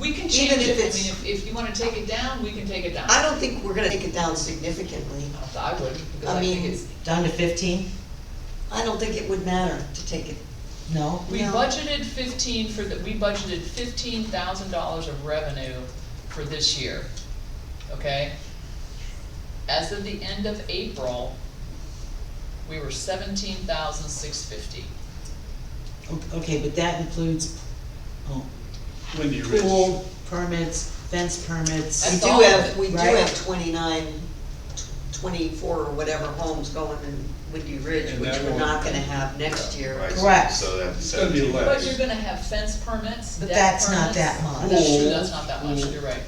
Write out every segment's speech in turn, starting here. We can change it, I Even mean, if it's- if, if you wanna take it down, we can take it down. I don't think we're gonna take it down significantly. I would, because I I think mean- it's, Down to fifteen? I don't think it would matter to take it. No? we No. budgeted fifteen for the, we budgeted fifteen thousand dollars of revenue for this year, okay? As of the end of April, we were seventeen thousand six fifty. O- Okay, but that includes, oh, When do you reach? pool permits, fence permits. We That's do all of have, it, we do right? have twenty-nine, tw- twenty-four or whatever homes going in Windy Ridge, And which that we're won't- not gonna have next year. Right, so- Correct. So that's It's gonna be seventeen. less. But you're gonna have fence permits, But deck that's not permits. that much. That's true, that's not that much, Mm. you're right.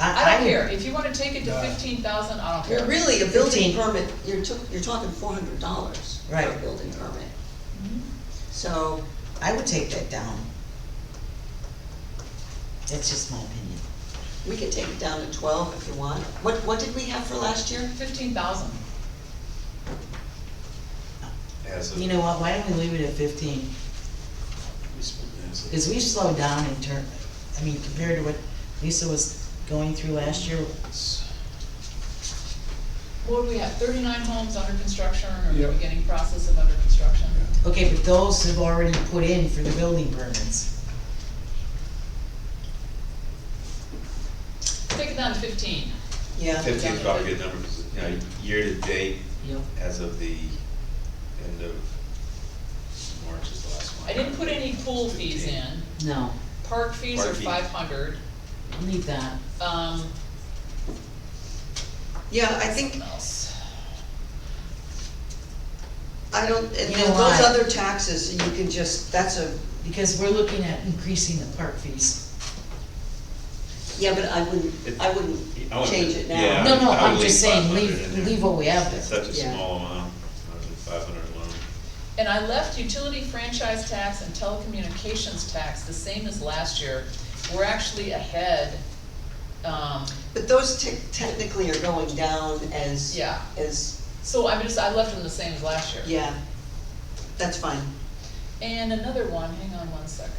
I don't care, if you wanna take it to No. fifteen thousand, I don't You're care. really, a building Fifteen. permit, you're took, you're talking four hundred dollars for a Right. building permit. Mm-hmm. So, I would take that down. That's just my opinion. we could take it down to twelve if you want. What, what did we have for last year? Fifteen thousand, As of, You know what, why don't we leave it at fifteen? as of- Because we've slowed down in turn, I mean, compared to what Lisa was going through last year, what do we have, thirty-nine homes under construction or Yep. the beginning process of under construction? Okay, but those have already put in for the building permits. Take it down to fifteen. Yeah. Fifteen's probably a good number, because, you know, year to date, Yep. as of the end of March is the last one. I didn't put any pool fees 15. in, No, park fees are Park fees. five hundred, leave that. um, Yeah, I think, what else? I don't, and You then know those why? other taxes, you can just, that's a, Because we're looking at increasing the park fees. yeah, but I It- wouldn't, I wouldn't I would- change it yeah. now. No, no, I I'm would just leave saying, 500 leave, in there. leave what we have It's there. such a Yeah. small amount, five hundred alone. And I left utility franchise tax and telecommunications tax the same as last year, we're actually ahead, um, But those te- technically are going down as, yeah. as, So I just, I left them the same as last year. yeah, that's fine. And another one, hang on one second.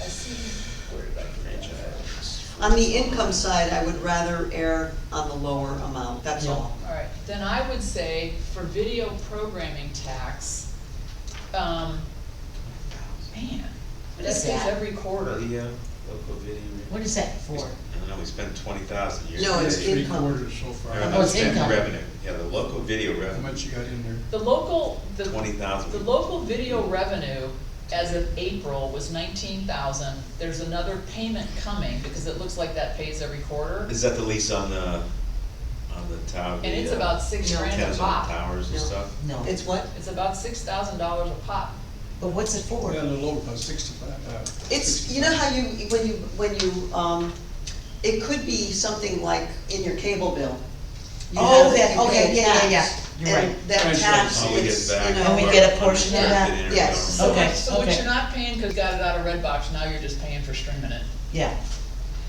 I see, where did I put that? On the income side, I would rather err on the lower amount, that's Yeah. all. All right, then I would say for video programming tax, um, man, What that is stays that? every quarter. The, uh, local video. What is that for? I don't know, we spent twenty thousand years. No, Yeah, Oh, it's Three income. quarters so Or Oh, far. it's spent income. Revenue, yeah, the local video How revenue, much you got in there? The local, the, twenty thousand. the local video revenue as of April was nineteen thousand. There's another payment coming because it looks like that pays every quarter. Is that the lease on the, on the tower? And it's about six No. grand a Towers on pop. towers and No. stuff? No, It's what? It's about six thousand dollars a pop. but what's it for? Yeah, a little, about sixty-five, uh. It's, you know how you, when you, when you, um, it could be something like in your cable bill. You Oh, have- that- you pay okay, a yeah, yeah, yeah. tax, You're and right. That Right, tax, Oh, we get it's, back. you And we know, get a portion of Yeah. that? Yes. So Okay, what- So what okay. you're not paying because you got it out of Red Box, now you're just paying for streaming it. Yeah,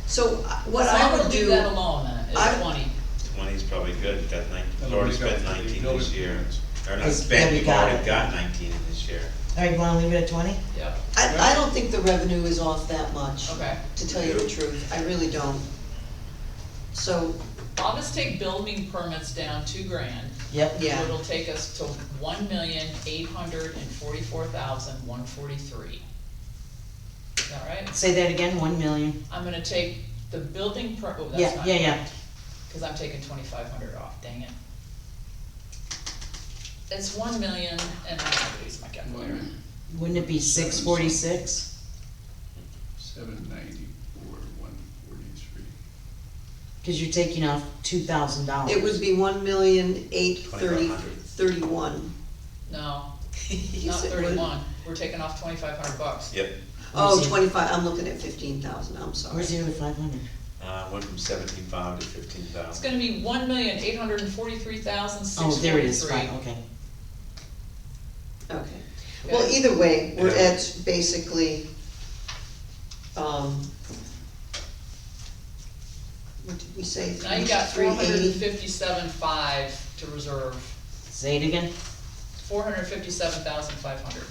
so uh, what So I I'm would gonna do. leave that alone then, I- is twenty. Twenty's probably good, got nineteen, That'll already make up spent for the nineteen building this year. Or not Because spent, then we we've got already it. got nineteen in this year. all right, you wanna leave it at twenty? Yep, I, I don't think the revenue is off that much, okay. to tell you the truth, I really don't. So, I'll just take building permits down two grand. Yep, Yeah. It'll take us to one million, eight hundred and forty-four thousand, one forty-three. Is that right? say that again, one million. I'm gonna take the building per, oh, that's Yeah, not. yeah, yeah, Cause I'm taking twenty-five hundred off, dang it. It's one million, and I'm gonna use my calculator. wouldn't it be six forty-six? Seven ninety-four, one forty-three. Cause you're taking off two thousand dollars. it would be one million eight thirty, thirty-one. No, You not said what? thirty-one, we're taking off twenty-five hundred bucks. Yep, Oh, twenty-five, I'm looking at fifteen thousand, I'm sorry. Where's the other five hundred? uh, went from seventeen-five to fifteen It's thousand. gonna be one million, eight hundred and forty-three thousand, six Oh, forty-three. there it is, fine, okay. Okay, well, either way, we're Yeah. at basically, um, what did we say? Now you got four Three hundred and eighty? fifty-seven five to reserve, Say it again? four hundred and fifty-seven thousand five hundred.